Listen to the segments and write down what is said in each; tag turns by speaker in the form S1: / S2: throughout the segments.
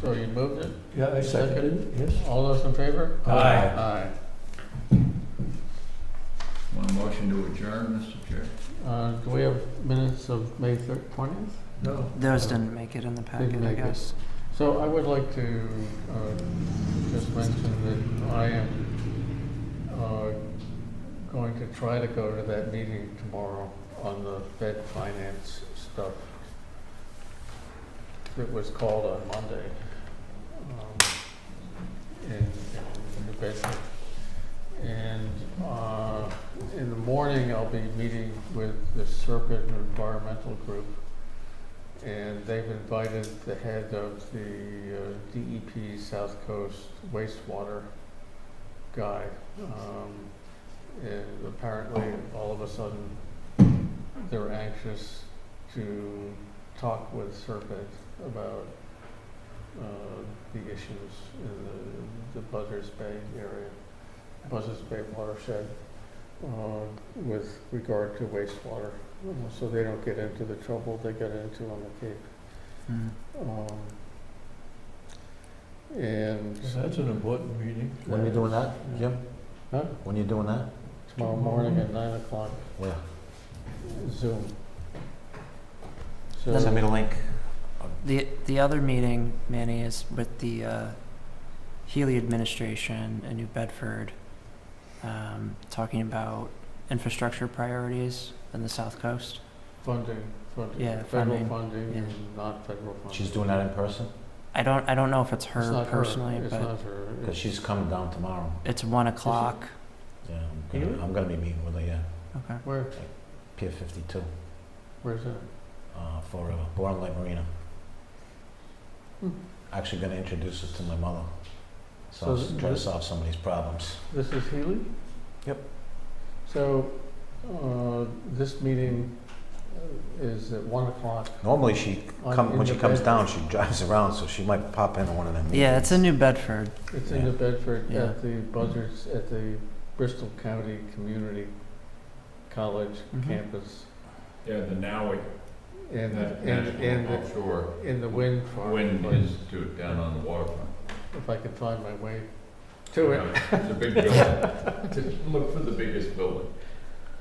S1: so you moved it?
S2: Yeah, I seconded it, yes.
S1: All those in favor?
S2: Aye.
S1: Aye.
S3: Want a motion to adjourn, Mr. Chair?
S1: Uh, do we have minutes of May thir- twentieth?
S2: No.
S4: Those didn't make it in the packet,
S1: Didn't
S4: I
S1: make it.
S4: guess.
S1: So I would like to, uh, just mention that I am, uh, going to try to go to that meeting tomorrow on the Fed finance stuff that was called on Monday, um, in, in New Bedford. And, uh, in the morning, I'll be meeting with the Serpent Environmental Group and they've invited the head of the uh, DEP South Coast wastewater guy. Um, And apparently, all of a sudden, they're anxious to talk with Serpent about uh, the issues in the- the Buzzards Bay area, Buzzards Bay watershed, uh, with regard to wastewater so they don't get into the trouble they got into on the Cape.
S4: Mm.
S1: Um, And
S2: That's an important meeting.
S5: When are you doing that, Jim?
S1: Huh?
S5: When are you doing that?
S1: tomorrow morning at nine o'clock,
S5: Where?
S1: Zoom. So,
S5: Send me the link.
S4: The, the other meeting, Manny, is with the uh, Healy administration in New Bedford, um, talking about infrastructure priorities in the South Coast.
S1: funding, funding,
S4: Yeah,
S1: federal
S4: funding,
S1: funding
S4: yeah.
S1: and not federal funding.
S5: She's doing that in person?
S4: I don't, I don't know if it's
S1: It's
S4: her
S1: not
S4: personally,
S1: It's
S4: but
S1: not her.
S5: Because she's coming down tomorrow.
S4: it's one o'clock.
S5: Yeah, I'm gonna, I'm gonna be meeting with her, yeah.
S4: Okay.
S1: Where,
S5: Pier fifty-two,
S1: where's that?
S5: uh, for, uh, Born Light Marina.
S1: Hmm.
S5: Actually gonna introduce us to my mother.
S1: So
S5: So,
S1: th-
S5: try to
S1: th-
S5: solve some of these problems.
S1: This is Healy?
S5: Yep.
S1: So, uh, this meeting is at one o'clock.
S5: Normally she,
S1: on-
S5: come,
S1: in
S5: when
S1: the
S5: she comes
S1: Bedford.
S5: down, she drives around, so she might pop into one of them meetings.
S4: Yeah, it's in New Bedford.
S1: It's in New Bedford
S4: Yeah.
S1: at the Buzzards, at the Bristol County Community College
S4: Mhm.
S1: campus
S3: Yeah, the Nowick
S1: and, and, and
S3: National Offshore
S1: the- in the wind farm.
S3: Wind
S1: but
S3: Institute down on the waterfront.
S1: If I can find my way to it.
S3: It's a big building. Look for the biggest building.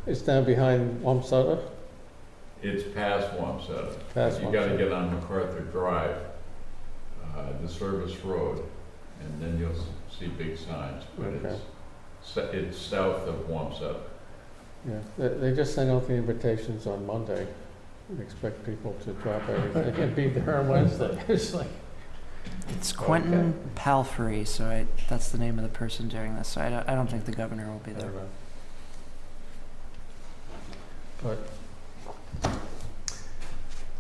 S1: It's down behind Wamsutta,
S3: It's past Wamsutta.
S1: past
S3: You gotta
S1: Wamsutta.
S3: get on MacArthur Drive, uh, the service road, and then you'll s- see big signs, but it's,
S1: Okay.
S3: s- it's south of Wamsutta.
S1: Yeah, they, they just sent out the invitations on Monday. Expect people to drop everything and be there on Wednesday. It's like,
S4: It's Quentin Palfrey, so I, that's the name of the person doing this. So I don't, I don't think the governor will be
S1: I
S4: there.
S1: don't know. But,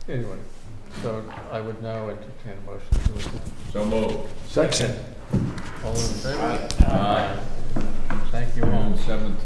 S1: anyway, so I would now entertain a motion to adjourn.
S3: So move.
S5: Section.
S1: All in favor?
S3: Aye.
S1: Thank you all.
S3: Seven